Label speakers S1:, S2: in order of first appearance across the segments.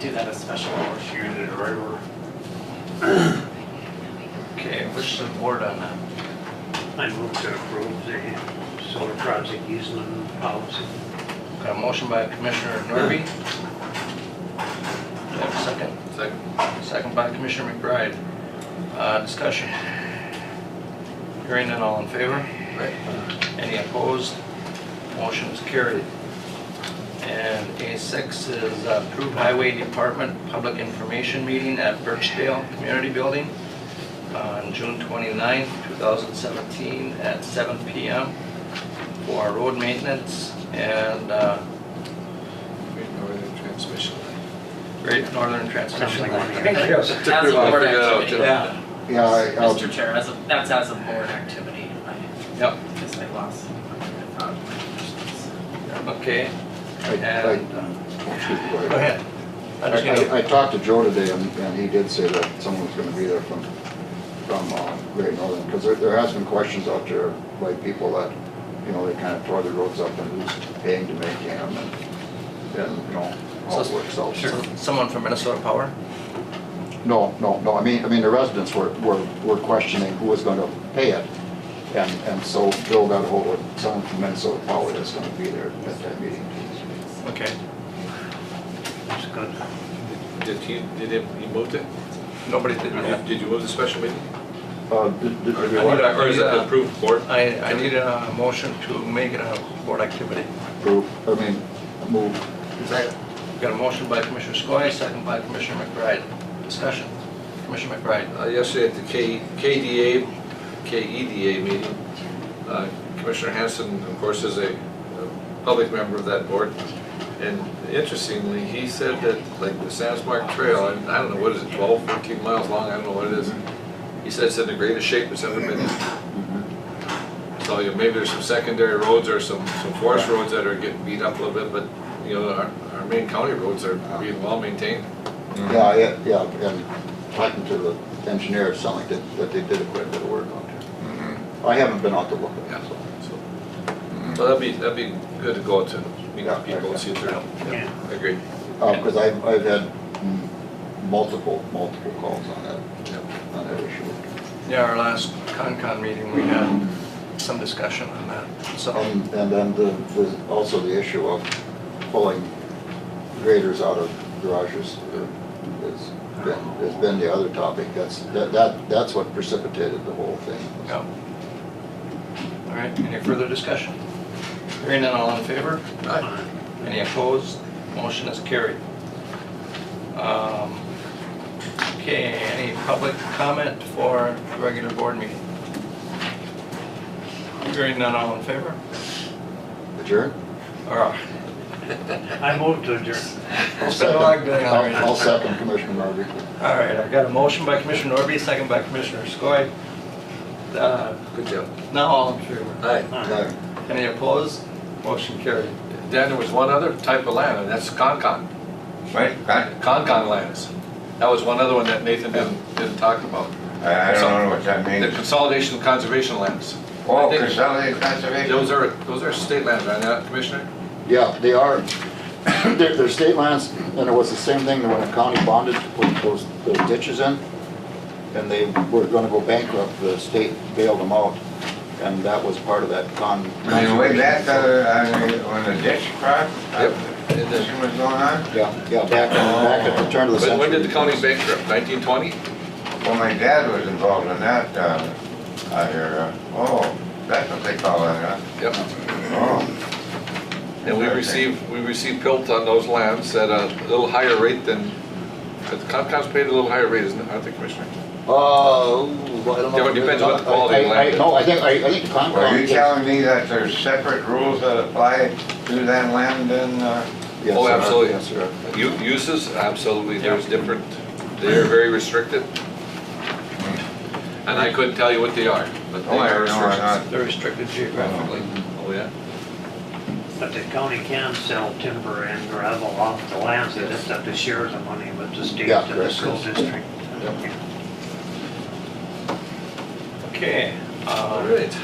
S1: do that as special motion.
S2: Shoot it or whatever.
S3: Okay, what's the board on that?
S2: I move to approve the solar project easement policy.
S3: Got a motion by Commissioner Norby. Do I have a second?
S4: Second.
S3: Second by Commissioner McBride. Uh, discussion. Hearing none, all in favor? Any opposed? Motion is carried. And A6 is uh, approved highway department public information meeting at Birchdale Community Building on June 29, 2017 at 7 PM for road maintenance and uh,
S4: Great Northern Transmission Line.
S3: Great Northern Transmission.
S2: Something like that.
S3: Thank you.
S4: Took me
S1: As
S4: a
S1: a
S4: while to
S1: board
S4: figure that out,
S1: activity.
S4: too.
S3: Yeah,
S5: Yeah, I- I'll,
S1: Mr. Chair, as a, that's as a board activity, I,
S3: yep,
S1: because I lost. I found my questions.
S3: okay.
S5: I- I-
S3: And, uh,
S5: excuse me, go
S3: go
S5: ahead.
S3: ahead. I just
S5: I,
S3: gotta-
S5: I- I talked to Joe today and, and he did say that someone's gonna be there from, from uh, Great Northern, because there, there has been questions out there by people that, you know, they kind of tore the roads up and who's paying to make them and, and, you know, how it works out.
S3: Sure. Someone from Minnesota Power?
S5: No, no, no, I mean, I mean, the residents were, were, were questioning who was gonna pay it. And, and so Joe got ahold of someone from Minnesota Power that's gonna be there at that meeting.
S3: Okay.
S2: It's good.
S4: Did he, did he, he moved it?
S3: Nobody did
S4: Did
S3: that.
S4: did you move the special meeting?
S5: Uh, did, did-
S4: Or
S5: did
S3: I
S5: you
S3: need
S5: want
S3: a-
S4: or is it the approved board?
S3: I, I need a motion to make it a board activity.
S5: to approve, I mean, move
S3: Got a motion by Commissioner Skoye, second by Commissioner McBride. Discussion. Commissioner McBride.
S4: Uh, Yesterday at the K- KDA, KEDA meeting, uh, Commissioner Hanson, of course, is a a public member of that board. And interestingly, he said that, like, the Sandsmark Trail, and I don't know, what is it, 12, 14 miles long, I don't know what it is. He said it's in the greatest shape it's ever been in. So you know, maybe there's some secondary roads or some some forest roads that are getting beat up a little bit, but, you know, our our main county roads are being well maintained.
S3: Mm-hmm.
S5: Yeah, yeah, yeah, and talking to the engineer, it sounded like that, that they did quite a bit of work on it. I haven't been out to look at
S4: Yeah,
S5: it, so.
S4: so, well, that'd be, that'd be good to go out to meet with people and see if they're,
S2: Yeah.
S4: I agree.
S5: Uh, cause I've, I've had mm, multiple, multiple calls on that,
S4: Yeah.
S5: on that issue.
S3: Yeah, our last CONCON meeting, we had some discussion on that, so.
S5: And, and then the, the, also the issue of pulling graders out of garages is, been, has been the other topic. That's, that, that, that's what precipitated the whole thing.
S3: Yeah. All right, any further discussion? Hearing none, all in favor? Any opposed? Motion is carried. Um, Okay, any public comment for the regular board meeting? Hearing none, all in favor?
S5: Adjourn?
S3: All right.
S2: I moved to adjourn.
S5: I'll
S3: been a long day already.
S5: second- I'll I'll second Commissioner Marbury.
S3: All right, I've got a motion by Commissioner Norby, second by Commissioner Skoye. Uh,
S4: Good job.
S3: Now all in favor.
S4: Hi,
S5: No.
S3: Any opposed? Motion carried.
S4: Dan, there was one other type of land, and that's Concon,
S6: Right, I,
S4: Concon lands. That was one other one that Nathan didn't, didn't talk about.
S6: I don't know what that
S4: The
S6: means.
S4: consolidation of conservation lands.
S6: Oh,
S4: I think
S6: consolidated conservation.
S4: Those are, those are state lands, aren't they, Commissioner?
S5: Yeah, they are. They're, they're state lands, and it was the same thing when the county bonded to put those, those ditches in, and they were gonna go bankrupt, the state bailed them out, and that was part of that con.
S6: And the way that, uh, I mean, on the ditch uh, part,
S4: Yep.
S6: condition was going on,
S5: Yeah, yeah, back, back at the turn of the
S4: When
S5: century.
S4: when did the county bankrupt, 1920?
S6: well, my dad was involved in that, uh, out here, uh, oh, that's what they call it, huh?
S4: Yep.
S6: Oh,
S4: And we receive, we receive pilt on those lands at a little higher rate than, but Concom's paid a little higher rate, isn't it, aren't they, Commissioner?
S5: Uh, well, I don't know.
S4: Yeah, but it depends what the quality
S5: I-
S4: of land
S5: I- I- No, I think, I, I think the con.
S6: are you telling me that there's separate rules that apply to that land and, uh,
S5: Yes,
S4: Oh,
S5: sir.
S4: absolutely.
S5: Yes, sir.
S4: U- Uses, absolutely, there's different, they're very restricted. And I couldn't tell you what they are, but they
S6: Oh, I
S4: are
S6: know, I know.
S4: restrictions.
S3: They're restricted geographically.
S4: Oh, yeah?
S2: But the county can sell timber and gravel off the lands, they just have to share the money with the state
S5: Yeah,
S2: and the
S5: correct.
S2: school district.
S5: Yep.
S3: Okay.
S4: All
S3: uh,
S4: right.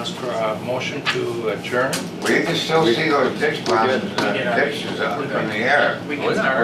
S3: Ask for a motion to adjourn.
S6: well, you can still see those ditch bombs, uh, ditches up in the air.
S1: We
S4: Oh,
S1: can
S4: yeah.
S1: start.